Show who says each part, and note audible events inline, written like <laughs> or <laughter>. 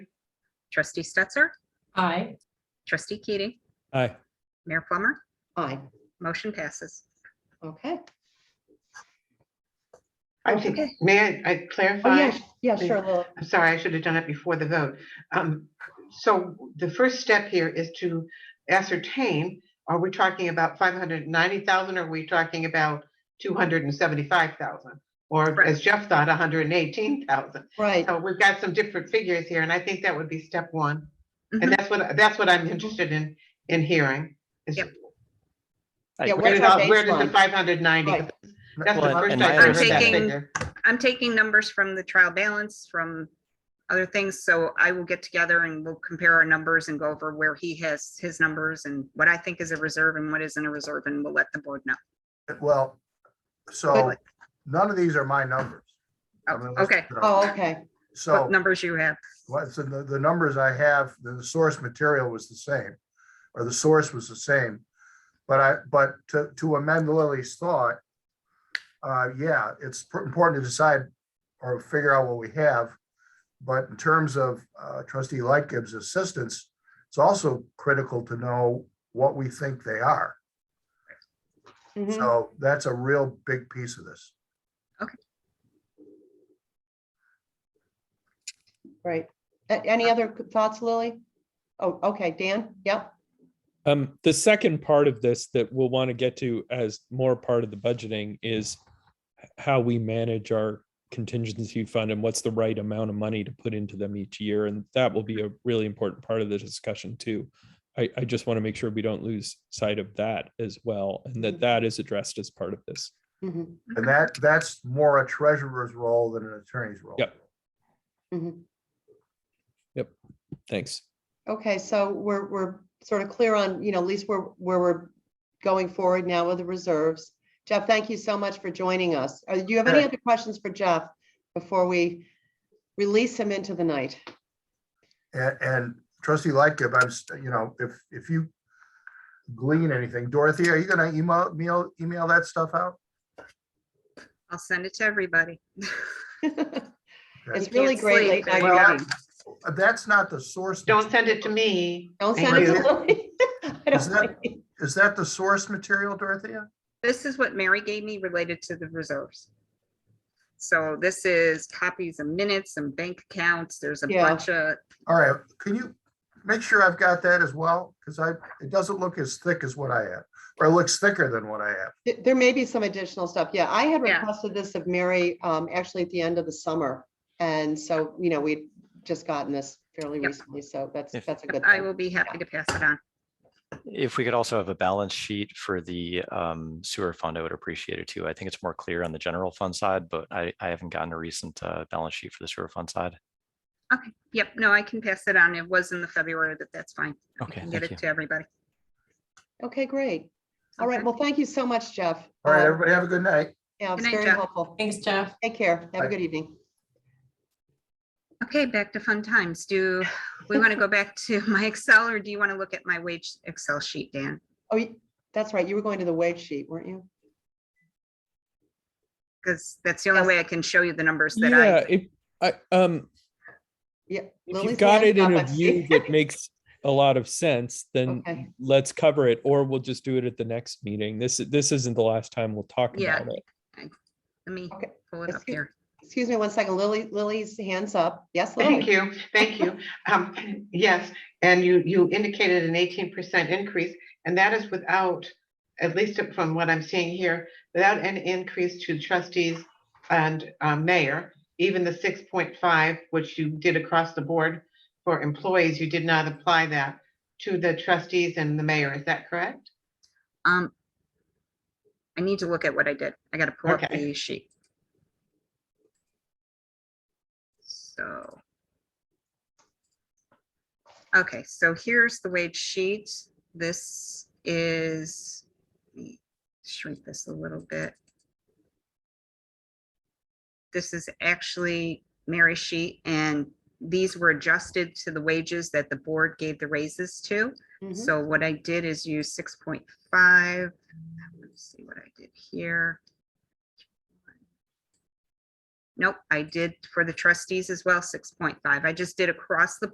Speaker 1: Trustee Stetser,
Speaker 2: Aye. <laughs>
Speaker 1: trustee Keating,
Speaker 3: Aye.
Speaker 1: Mayor Plummer,
Speaker 2: Aye.
Speaker 1: motion passes.
Speaker 2: Okay.
Speaker 4: I think,
Speaker 1: Okay.
Speaker 4: may I- I
Speaker 2: Oh,
Speaker 4: clarify?
Speaker 2: yeah, yeah, sure, Lily.
Speaker 4: I'm sorry, I should have done it before the vote. Um, So the first step here is to ascertain, are we talking about 590,000? Are we talking about 275,000? Or
Speaker 1: Correct.
Speaker 4: as Jeff thought, 118,000?
Speaker 2: Right,
Speaker 4: So we've got some different figures here, and I think that would be step one.
Speaker 1: Mhm.
Speaker 2: Mm-hmm.
Speaker 4: And that's what, that's what I'm interested in, in hearing. is
Speaker 1: Yep.
Speaker 2: Yeah,
Speaker 4: Where
Speaker 2: What's
Speaker 4: does,
Speaker 2: our
Speaker 4: all- where does the
Speaker 2: baseline?
Speaker 4: 590?
Speaker 2: Right.
Speaker 4: That's the
Speaker 3: Well,
Speaker 4: first
Speaker 3: and
Speaker 4: I
Speaker 3: my
Speaker 4: heard that
Speaker 1: understanding-
Speaker 4: figure.
Speaker 1: I'm taking numbers from the trial balance, from other things, so I will get together and we'll compare our numbers and go over where he has his numbers and what I think is a reserve and what isn't a reserve, and we'll let the board know.
Speaker 5: Well, so
Speaker 1: Wait,
Speaker 5: none of these are my numbers. I mean,
Speaker 1: Oh,
Speaker 5: Oh, let's- uh,
Speaker 1: Okay,
Speaker 2: oh, okay,
Speaker 5: So,
Speaker 1: what numbers you have.
Speaker 5: well, so the, the numbers I have, the the source material was the same, or the source was the same. But I, but to, to amend Lily's thought, uh, yeah, it's pr- important to decide or figure out what we have. But in terms of uh, trustee Lightgib's assistance, it's also critical to know what we think they are.
Speaker 1: Mm-hmm.
Speaker 2: Mhm.
Speaker 5: So that's a real big piece of this.
Speaker 2: right. A- Any other thoughts, Lily? Oh, okay, Dan, yep,
Speaker 3: Um, the second part of this that we'll want to get to as more part of the budgeting is how we manage our contingency fund and what's the right amount of money to put into them each year. And that will be a really important part of the discussion too. I, I just want to make sure we don't lose sight of that as well and that that is addressed as part of this.
Speaker 2: Mhm,
Speaker 5: And that, that's more a treasurer's role than an attorney's role.
Speaker 3: Yep.
Speaker 2: mhm.
Speaker 3: Thanks.
Speaker 2: Okay, so we're, we're sort of clear on, you know, at least where, where we're going forward now with the reserves. Jeff, thank you so much for joining us. Uh, Do you have any
Speaker 5: Sure.
Speaker 2: other questions for Jeff before we release him into the night? <laughs>
Speaker 5: And, and trustee Lightgib, I'm, st- you know, if, if you glean anything, Dorothy, are you gonna email, email, email that stuff out?
Speaker 1: I'll send it to everybody.
Speaker 2: It's
Speaker 1: You
Speaker 2: really
Speaker 1: can't
Speaker 2: great
Speaker 1: sleep
Speaker 2: late night
Speaker 1: very well.
Speaker 2: writing.
Speaker 5: Uh, That's not the source.
Speaker 4: Don't send
Speaker 5: material.
Speaker 4: it to me.
Speaker 2: Don't
Speaker 4: Thank
Speaker 2: send it
Speaker 5: you.
Speaker 2: to Lily. I
Speaker 5: Is
Speaker 2: don't
Speaker 5: that-
Speaker 2: like it.
Speaker 5: Is that the source material, Dorothea?
Speaker 1: This is what Mary gave me related to the reserves. So this is copies of minutes and bank accounts. There's a
Speaker 2: Yeah.
Speaker 1: bunch of,
Speaker 5: All right, can you make sure I've got that as well? Because I, it doesn't look as thick as what I have, or it looks thicker than what I have.
Speaker 2: Th- There may be some additional stuff. Yeah, I had
Speaker 1: Yeah.
Speaker 2: requested this of Mary, um, actually at the end of the summer. And so, you know, we'd just gotten this fairly
Speaker 1: Yep.
Speaker 2: recently, so that's,
Speaker 6: If-
Speaker 2: that's a good
Speaker 1: I
Speaker 2: thing.
Speaker 1: will be happy to pass it on.
Speaker 6: If we could also have a balance sheet for the um, sewer fund, I would appreciate it too. I think it's more clear on the general fund side, but I, I haven't gotten a recent uh, balance sheet for the sewer fund side.
Speaker 1: Okay, yep, no, I can pass it on. It was in the February, but that's fine. I
Speaker 6: Okay,
Speaker 1: can Get
Speaker 6: thank you.
Speaker 1: it to everybody.
Speaker 2: Okay, great. All right,
Speaker 1: Okay.
Speaker 2: well, thank you so much, Jeff.
Speaker 5: All right,
Speaker 2: Um,
Speaker 5: everybody have a good night.
Speaker 2: Yeah, it's
Speaker 1: Good night,
Speaker 2: very
Speaker 1: Jeff.
Speaker 2: helpful.
Speaker 7: Thanks, Jeff.
Speaker 2: Take care. Have a
Speaker 5: Bye.
Speaker 2: good evening.
Speaker 1: Okay, back to fun times.
Speaker 2: <laughs>
Speaker 1: Do we want to go back to my Excel or do you want to look at my wage Excel sheet, Dan?
Speaker 2: Oh, y- that's right. You were going to the wage sheet, weren't you?
Speaker 1: Because that's the only
Speaker 2: Yes.
Speaker 1: way I can show you the numbers that
Speaker 3: Yeah,
Speaker 1: I,
Speaker 3: if, I, um,
Speaker 2: Yeah.
Speaker 3: if
Speaker 2: Lily's
Speaker 3: you've got
Speaker 2: hands
Speaker 3: it in
Speaker 2: up,
Speaker 3: a
Speaker 2: I see.
Speaker 3: view that makes a lot of sense, then
Speaker 2: <laughs> Okay,
Speaker 3: let's cover it, or we'll just do it at the next meeting. This, this isn't the last time we'll talk
Speaker 1: Yeah.
Speaker 3: about it.
Speaker 1: let me
Speaker 2: okay.
Speaker 1: pull it up
Speaker 2: Excuse-
Speaker 1: here.
Speaker 2: Excuse me one second. Lily, Lily's hands up. Yes,
Speaker 4: Thank
Speaker 2: Lily?
Speaker 4: you, thank you. Um, yes, and you, you indicated an eighteen percent increase, and that is without, at least from what I'm seeing here, without an increase to trustees and uh, mayor, even the six point five, which you did across the board for employees, you did not apply that to the trustees and the mayor, is that correct?
Speaker 1: Um, I need to look at what I did. I got to pull up
Speaker 4: Okay.
Speaker 1: the sheet. So. Okay, so here's the wage sheet. This is, let me shrink this a little bit. This is actually Mary's sheet and these were adjusted to the wages that the board gave the raises to.
Speaker 2: Mhm.
Speaker 1: So what I did is use six point five. Let's see what I did here. Nope, I did for the trustees as well, six point five. I just did across the